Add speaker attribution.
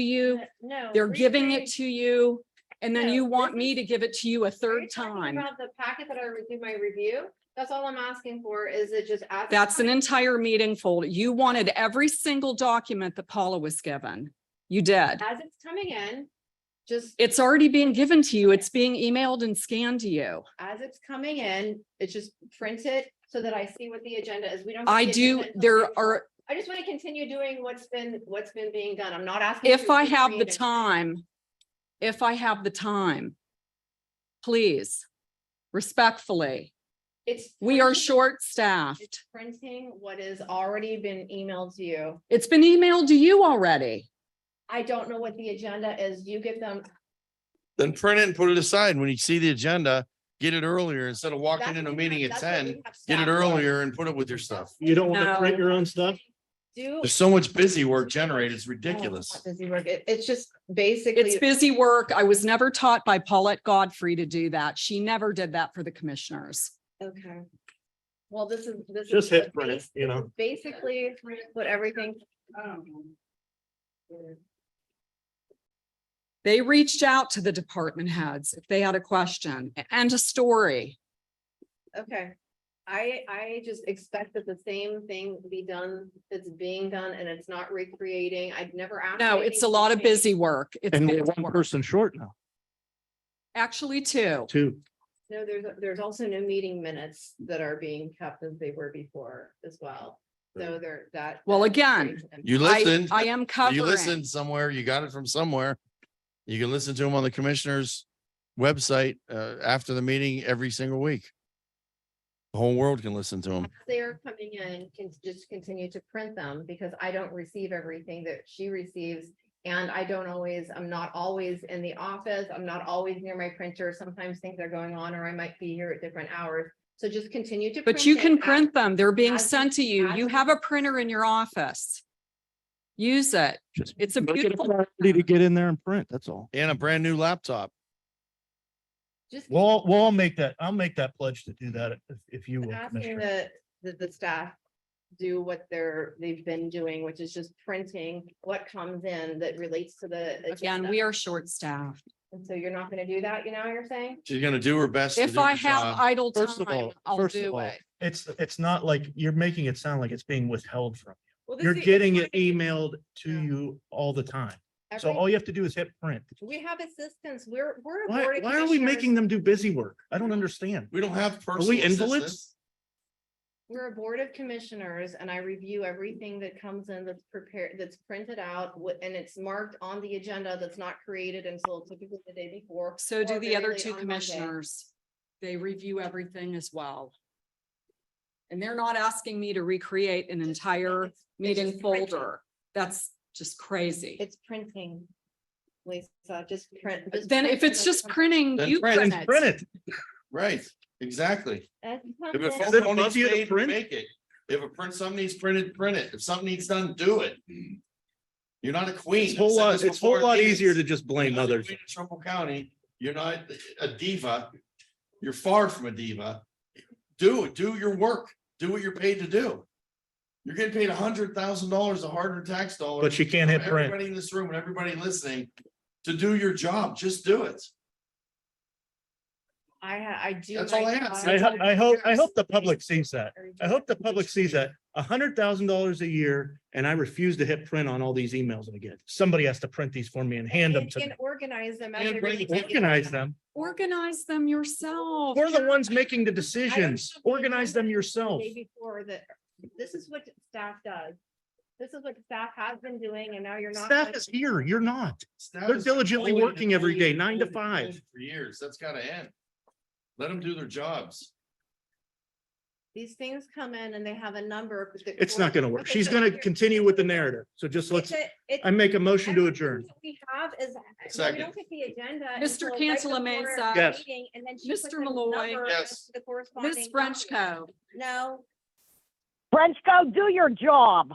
Speaker 1: to you,
Speaker 2: Uh, No.
Speaker 1: they're
Speaker 2: we're
Speaker 1: giving
Speaker 2: saying-
Speaker 1: it to you, and then
Speaker 2: No,
Speaker 1: you
Speaker 2: this
Speaker 1: want
Speaker 2: is-
Speaker 1: me to give it to you a
Speaker 2: Are
Speaker 1: third
Speaker 2: you talking
Speaker 1: time.
Speaker 2: About the packet that I reviewed my review, that's all I'm asking for, is it just? as-
Speaker 1: That's an entire meeting folder. You wanted every single document that Paula was given. You did.
Speaker 2: As it's coming in, just
Speaker 1: It's already being given to you. It's being emailed and scanned to you.
Speaker 2: as it's coming in, it's just print it so that I see what the agenda is. We don't. get
Speaker 1: I
Speaker 2: the
Speaker 1: do,
Speaker 2: agenda until
Speaker 1: there
Speaker 2: later.
Speaker 1: are,
Speaker 2: I just want to continue doing what's been, what's been being done. I'm not asking.
Speaker 1: if
Speaker 2: to
Speaker 1: I have the
Speaker 2: recreate it.
Speaker 1: time, if I have the time, please, respectfully,
Speaker 2: It's.
Speaker 1: we are
Speaker 2: printing-
Speaker 1: short-staffed.
Speaker 2: It's printing what has already been emailed to you.
Speaker 1: It's been emailed to you already.
Speaker 2: I don't know what the agenda is. You give them.
Speaker 3: Then print it and put it aside. When you see the agenda, get it earlier instead of
Speaker 2: That's
Speaker 3: walking in a
Speaker 2: what we
Speaker 3: meeting
Speaker 2: have-
Speaker 3: at
Speaker 2: that's what we
Speaker 3: ten.
Speaker 2: have
Speaker 3: Get
Speaker 2: staff
Speaker 3: it
Speaker 2: do.
Speaker 3: earlier and put it with your stuff.
Speaker 4: You don't want
Speaker 1: No.
Speaker 4: to print your own stuff?
Speaker 2: Do.
Speaker 3: There's so much busy work generated. It's
Speaker 2: Oh, it's
Speaker 3: ridiculous.
Speaker 2: not Busy work. It- it's just basically.
Speaker 1: It's busy work. I was never taught by Paulette Godfrey to do that. She never did that for the commissioners.
Speaker 2: Okay. Well, this is, this is.
Speaker 4: Just
Speaker 2: the
Speaker 4: hit print,
Speaker 2: base-
Speaker 4: you know?
Speaker 2: Basically, what everything,
Speaker 1: They reached out to the department heads if they had a question and a story.
Speaker 2: okay. I, I just expect that the same thing be done that's being done and it's not recreating. I've never asked.
Speaker 1: No, it's a lot of busy work. It's busy work.
Speaker 4: person short now.
Speaker 1: Actually, two.
Speaker 4: Two.
Speaker 2: No, there's, there's also no meeting minutes that are being kept as they were before as well. So there, that.
Speaker 1: Well,
Speaker 2: that
Speaker 1: again,
Speaker 2: creates an
Speaker 3: You
Speaker 1: I-
Speaker 3: listened,
Speaker 1: I am
Speaker 3: you listened
Speaker 1: covering.
Speaker 3: somewhere, you got it from somewhere. You can listen to them on the commissioner's website uh after the meeting every single week. The whole world can listen to them.
Speaker 2: as they're coming in, can just continue to print them because I don't receive everything that she receives. And I don't always, I'm not always in the office. I'm not always near my printer. Sometimes things are going on or I might be here at different hours. So just continue to.
Speaker 1: But you
Speaker 2: it
Speaker 1: can
Speaker 2: as-
Speaker 1: print them. They're being
Speaker 2: as-
Speaker 1: sent to you.
Speaker 2: as-
Speaker 1: You have a printer in your office. Use it.
Speaker 5: Just
Speaker 1: It's a
Speaker 5: make it
Speaker 1: beautiful-
Speaker 5: priority To get in there and print, that's all.
Speaker 3: And a brand new laptop.
Speaker 2: Just
Speaker 4: Well, well, I'll make that, I'll make that pledge to do that if, if you will.
Speaker 2: asking
Speaker 4: Commissioner.
Speaker 2: the, the, the staff do what they're, they've been doing, which is just printing what comes in that relates to the.
Speaker 1: Again,
Speaker 2: agenda.
Speaker 1: we are short-staffed.
Speaker 2: And So you're not gonna do that, you know what you're saying?
Speaker 3: She's gonna do her best. to
Speaker 1: If
Speaker 3: do
Speaker 1: I
Speaker 3: her
Speaker 1: have
Speaker 3: job.
Speaker 1: idle
Speaker 5: First of
Speaker 1: time,
Speaker 5: all-
Speaker 1: I'll
Speaker 5: first of
Speaker 1: do
Speaker 5: all,
Speaker 1: it.
Speaker 4: It's, it's not like, you're making it sound like it's being withheld from.
Speaker 2: Well,
Speaker 4: you. You're getting it emailed to
Speaker 2: Yeah.
Speaker 4: you all the time. So all you have to do is hit print.
Speaker 2: We have assistants. We're, we're. a board
Speaker 4: Why,
Speaker 2: of
Speaker 4: why are we
Speaker 2: commissioners.
Speaker 4: making them do busy work? I don't understand.
Speaker 3: We don't have.
Speaker 4: Are we
Speaker 3: personal
Speaker 4: invalids?
Speaker 3: assistants.
Speaker 2: We're a board of commissioners and I review everything that comes in that's prepared, that's printed out wi- and it's marked on the agenda that's not created until typically the day before.
Speaker 1: So do
Speaker 2: or
Speaker 1: the
Speaker 2: very
Speaker 1: other
Speaker 2: late
Speaker 1: two
Speaker 2: on Monday.
Speaker 1: commissioners. They review everything as well. And they're not asking me to recreate an
Speaker 2: Just-
Speaker 1: entire
Speaker 2: it's-
Speaker 1: meeting
Speaker 2: just printing.
Speaker 1: folder. That's just crazy.
Speaker 2: It's printing. Lisa, just print. just
Speaker 1: Then if
Speaker 2: print
Speaker 1: it's
Speaker 2: what
Speaker 1: just
Speaker 2: comes-
Speaker 1: printing,
Speaker 3: Then
Speaker 1: you print
Speaker 3: print-
Speaker 1: it.
Speaker 4: Print it.
Speaker 3: Right, exactly.
Speaker 2: as it
Speaker 3: If
Speaker 2: comes
Speaker 3: a
Speaker 2: in.
Speaker 4: phone
Speaker 3: phone
Speaker 4: Is it
Speaker 3: call
Speaker 4: above
Speaker 3: needs
Speaker 4: you to
Speaker 3: made,
Speaker 4: print?
Speaker 3: make it. If a print, something needs printed, print it. If something needs done, do it. You're not a queen.
Speaker 4: It's a
Speaker 3: I've
Speaker 4: whole
Speaker 3: said
Speaker 4: lot,
Speaker 3: this
Speaker 4: it's a whole
Speaker 3: before,
Speaker 4: lot
Speaker 3: ladies.
Speaker 4: easier to just
Speaker 3: You're
Speaker 4: blame
Speaker 3: not the
Speaker 4: others.
Speaker 3: queen of Trumbull County, you're not a diva. You're far from a diva. Do it, do your work, do what you're paid to do. You're getting paid a hundred thousand dollars, a harder tax dollar.
Speaker 4: But you can't hit
Speaker 3: from
Speaker 4: print.
Speaker 3: Everybody in this room and everybody listening, to do your job, just do it.
Speaker 2: I, ha- I do.
Speaker 3: That's all
Speaker 2: my
Speaker 3: I
Speaker 2: job.
Speaker 3: ask.
Speaker 4: I hope, I hope, I hope the public sees that. I hope the public sees that a hundred thousand dollars a year and I refuse to hit print on all these emails again. Somebody has to print these for me and hand them
Speaker 2: And-
Speaker 4: to me.
Speaker 2: and Organize them. as
Speaker 3: And
Speaker 2: they
Speaker 3: bring-
Speaker 2: really take it.
Speaker 4: Organize them.
Speaker 1: Organize them yourself.
Speaker 4: We're the ones making the decisions. Organize them yourself.
Speaker 2: Day before that, this is what staff does. This is what staff has been doing and now you're not.
Speaker 4: Staff
Speaker 2: gonna-
Speaker 4: is here. You're not.
Speaker 3: Staff
Speaker 4: They're
Speaker 3: is
Speaker 4: diligently
Speaker 3: bullied and
Speaker 4: working every
Speaker 3: bullied
Speaker 4: day,
Speaker 3: and
Speaker 4: nine to
Speaker 3: bullied and bullied
Speaker 4: five.
Speaker 3: For years, that's gotta end. Let them do their jobs.
Speaker 2: These things come in and they have a number. that
Speaker 4: It's not gonna work.
Speaker 2: Okay,
Speaker 4: She's
Speaker 2: so
Speaker 4: gonna
Speaker 2: here-
Speaker 4: continue with the narrative. So just
Speaker 2: it's
Speaker 4: let's,
Speaker 2: a- it's-
Speaker 4: I make a motion to
Speaker 2: everything
Speaker 4: adjourn.
Speaker 2: that We have is, well, we
Speaker 3: Second.
Speaker 2: don't get the agenda.
Speaker 1: Mr.
Speaker 2: until right
Speaker 1: Cantala
Speaker 2: before
Speaker 1: Mesa.
Speaker 2: our
Speaker 4: Yes.
Speaker 2: meeting, And then she puts
Speaker 1: Mr.
Speaker 2: a
Speaker 1: Malloy.
Speaker 2: number
Speaker 3: Yes.
Speaker 2: next to the corresponding
Speaker 1: Ms.
Speaker 2: document.
Speaker 1: Frenchco.
Speaker 2: No,
Speaker 6: Frenchco, do your job.